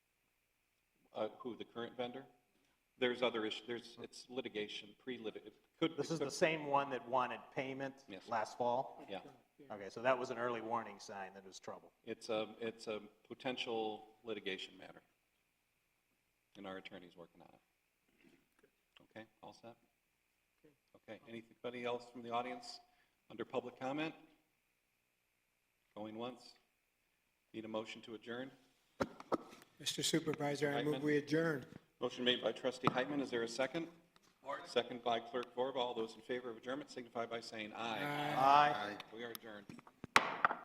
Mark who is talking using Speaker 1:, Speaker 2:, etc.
Speaker 1: uh, who, the current vendor? There's other issues, there's, it's litigation, pre-lit, it could.
Speaker 2: This
Speaker 1: it
Speaker 2: is the
Speaker 1: could-
Speaker 2: same one that wanted payment
Speaker 1: Yes.
Speaker 2: last fall?
Speaker 1: Yeah,
Speaker 2: Okay, so that was an early warning sign that it was trouble.
Speaker 1: it's a, it's a potential litigation matter. And our attorney's working on it. Okay, all set? Okay, anybody else from the audience under public comment? Going once? Need a motion to adjourn?
Speaker 3: Mr. Supervisor, I
Speaker 1: Eichmann?
Speaker 3: move we adjourn.
Speaker 1: Motion made by trustee Heitman, is there a second? Second by clerk Vorba, all those in favor of adjournment signify by saying aye.
Speaker 2: Aye.
Speaker 1: We are adjourned.